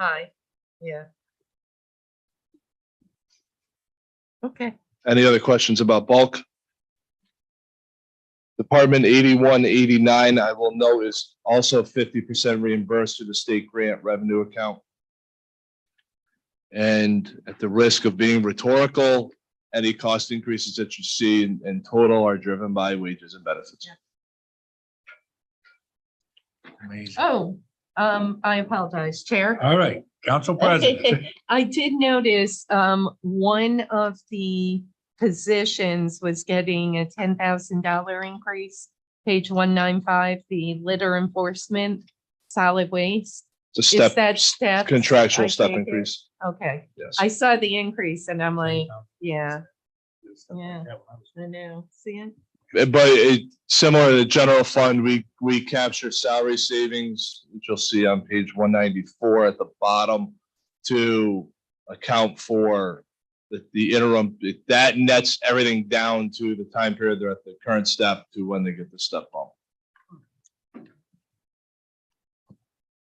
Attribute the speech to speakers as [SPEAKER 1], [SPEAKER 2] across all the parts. [SPEAKER 1] Hi, yeah. Okay,
[SPEAKER 2] Any other questions about bulk? Department eighty-one eighty-nine, I will note is also fifty percent reimbursed through the state grant revenue account. And at the risk of being rhetorical, any cost increases that you see in, in total are driven by wages and benefits.
[SPEAKER 3] Amazing.
[SPEAKER 1] oh, um, I apologize,
[SPEAKER 2] Uh,
[SPEAKER 1] Chair.
[SPEAKER 3] All right, Council President.
[SPEAKER 1] I did notice, um, one of the positions was getting a ten thousand dollar increase. Page one nine five, the litter enforcement, solid waste.
[SPEAKER 2] It's a
[SPEAKER 1] Is
[SPEAKER 2] step,
[SPEAKER 1] that step? I
[SPEAKER 2] contractual step
[SPEAKER 1] take it.
[SPEAKER 2] increase.
[SPEAKER 1] Okay,
[SPEAKER 2] Yes.
[SPEAKER 1] I saw the increase and I'm like, yeah, Yeah. I know, see it?
[SPEAKER 2] Uh, But it, similar to the general fund, we, we capture salary savings, which you'll see on page one ninety-four at the bottom to account for the, the interim, that nets everything down to the time period they're at the current step to when they get the step bump.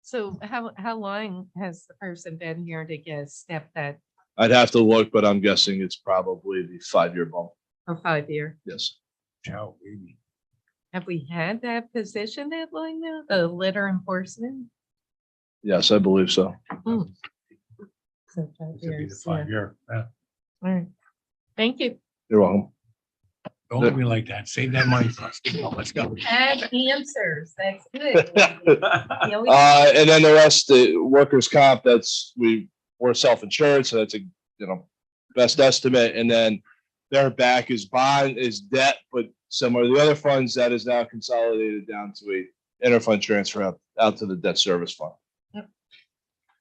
[SPEAKER 1] So how, how long has the person been here to get a step that
[SPEAKER 2] I'd have to look, but I'm guessing it's probably the five-year bump,
[SPEAKER 1] for oh, five year?
[SPEAKER 2] yes.
[SPEAKER 3] Ciao, baby.
[SPEAKER 1] Have we had that position that long now, the litter enforcement?
[SPEAKER 2] Yes, I believe so.
[SPEAKER 1] So five
[SPEAKER 3] This would be the
[SPEAKER 1] years, yeah.
[SPEAKER 3] five-year, uh,
[SPEAKER 1] All right. Thank you.
[SPEAKER 2] You're welcome.
[SPEAKER 3] Don't let me like that. Save that money for us. Come on, Let's go.
[SPEAKER 1] Have answers, that's good. You always-
[SPEAKER 2] Uh, and then the rest, the workers' comp, that's, we, we're self-insured, so that's a, you know, best estimate, and then their back is bond, is debt, but similar to the other funds, that is now consolidated down to a interfund transfer out, out to the debt service fund.
[SPEAKER 1] Yep.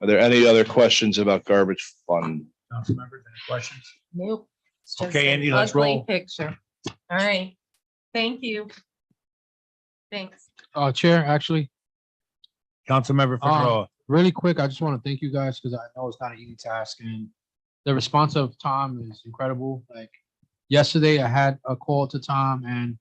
[SPEAKER 2] Are there any other questions about garbage fund?
[SPEAKER 3] Council members, any questions?
[SPEAKER 1] Nope. It's just
[SPEAKER 3] Okay,
[SPEAKER 1] an
[SPEAKER 3] Andy, let's
[SPEAKER 1] ugly
[SPEAKER 3] roll.
[SPEAKER 1] Picture. All right. Thank you. Thanks.
[SPEAKER 4] Uh, Chair, actually,
[SPEAKER 3] Councilmember
[SPEAKER 4] Um,
[SPEAKER 3] Figueroa.
[SPEAKER 4] really quick, I just want to thank you guys because I know it's not an easy task and the response of Tom is incredible. Like yesterday, I had a call to Tom and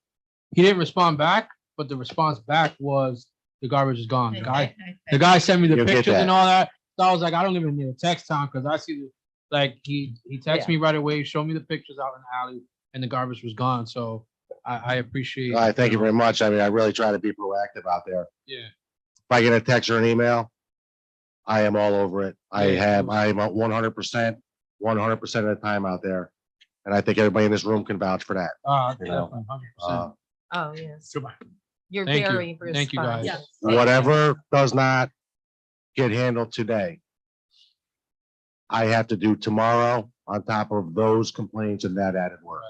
[SPEAKER 4] he didn't respond back, but the response back was the garbage is gone. The guy, the guy sent me the
[SPEAKER 2] You'll get
[SPEAKER 4] pictures and
[SPEAKER 2] that.
[SPEAKER 4] all that. So I was like, I don't even need a text Tom because I see, the like, he, he texted
[SPEAKER 1] Yeah.
[SPEAKER 4] me right away, showed me the pictures out in the alley and the garbage was gone. So I, I appreciate.
[SPEAKER 5] All right, thank you very much. I mean, I really try to be proactive out there.
[SPEAKER 4] Yeah.
[SPEAKER 5] If I get a text or an email, I am all over it. I
[SPEAKER 4] Yeah,
[SPEAKER 5] have,
[SPEAKER 4] cool.
[SPEAKER 5] I am one hundred percent, one hundred percent of the time out there. And I think everybody in this room can vouch for that.
[SPEAKER 4] Uh,
[SPEAKER 5] You know,
[SPEAKER 4] definitely, 100%.
[SPEAKER 5] Uh,
[SPEAKER 1] Oh, yes.
[SPEAKER 3] Goodbye.
[SPEAKER 1] You're
[SPEAKER 4] Thank you.
[SPEAKER 1] very
[SPEAKER 4] Thank you, guys.
[SPEAKER 1] responsive.
[SPEAKER 5] Whatever does not get handled today, I have to do tomorrow on top of those complaints and that added work.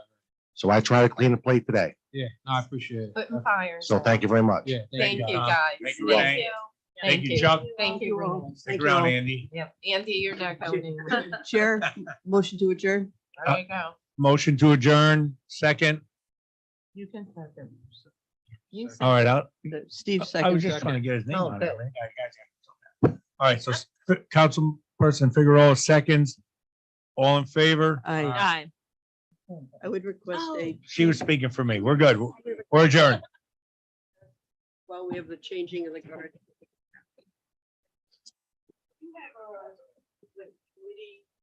[SPEAKER 5] So I try to clean the plate today.
[SPEAKER 4] Yeah, no, I appreciate it.
[SPEAKER 1] Putting fires.
[SPEAKER 5] So
[SPEAKER 1] out.
[SPEAKER 5] thank you very much.
[SPEAKER 4] Yeah.
[SPEAKER 1] Thank you,
[SPEAKER 3] Tom.
[SPEAKER 1] guys.
[SPEAKER 3] Thank you, Renee. Thank you, Chuck.
[SPEAKER 1] Thank you. Renee.
[SPEAKER 3] Stick around, Andy.
[SPEAKER 1] Yep, Andy, you're not going anywhere.
[SPEAKER 6] Chair, motion to adjourn?
[SPEAKER 1] There you go.
[SPEAKER 3] Motion to adjourn, second.
[SPEAKER 1] You can second. You
[SPEAKER 3] All right, I'll-
[SPEAKER 6] Uh,
[SPEAKER 3] I
[SPEAKER 6] Steve
[SPEAKER 3] was
[SPEAKER 6] seconds.
[SPEAKER 3] just trying to get his name
[SPEAKER 1] Oh,
[SPEAKER 3] on
[SPEAKER 1] good.
[SPEAKER 3] it. right? All right, so s- Councilperson Figueroa seconds. All in favor?
[SPEAKER 6] Aye.
[SPEAKER 3] Uh,
[SPEAKER 6] Aye. I would request a,
[SPEAKER 3] She was speaking for me. We're good. We're adjourned.
[SPEAKER 6] while we have the changing of the guard.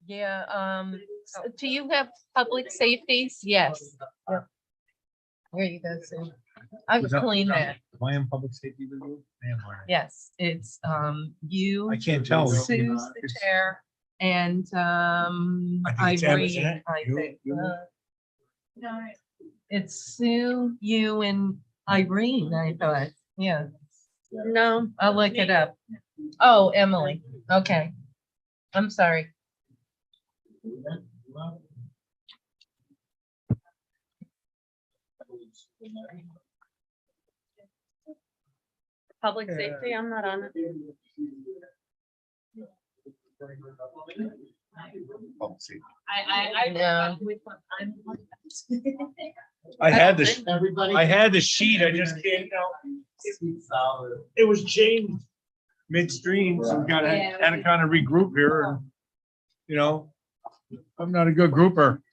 [SPEAKER 1] Yeah, um,
[SPEAKER 6] Uh,
[SPEAKER 1] do you have public safeties? Yes. Yep. There you go, Sue. I was clean that.
[SPEAKER 3] Plan public safety review? Man, Mark.
[SPEAKER 1] Yes, it's, um, you,
[SPEAKER 3] I can't tell.
[SPEAKER 1] Sue's the chair, and, um,
[SPEAKER 3] I think it's Em, isn't
[SPEAKER 1] Irene,
[SPEAKER 3] it?
[SPEAKER 1] I
[SPEAKER 3] You-
[SPEAKER 1] think.
[SPEAKER 3] you-
[SPEAKER 1] uh, No, it's Sue, you and Irene, I thought, yeah. No, I'll look it up. Oh, Emily, okay. I'm sorry. Public safety, I'm not on it.
[SPEAKER 3] Public safety.
[SPEAKER 1] I, I. No.
[SPEAKER 3] I had this, I had the sheet. I just can't tell. It was changed midstream, so we gotta, had to kind of regroup here. and, You know, I'm not a good grouper.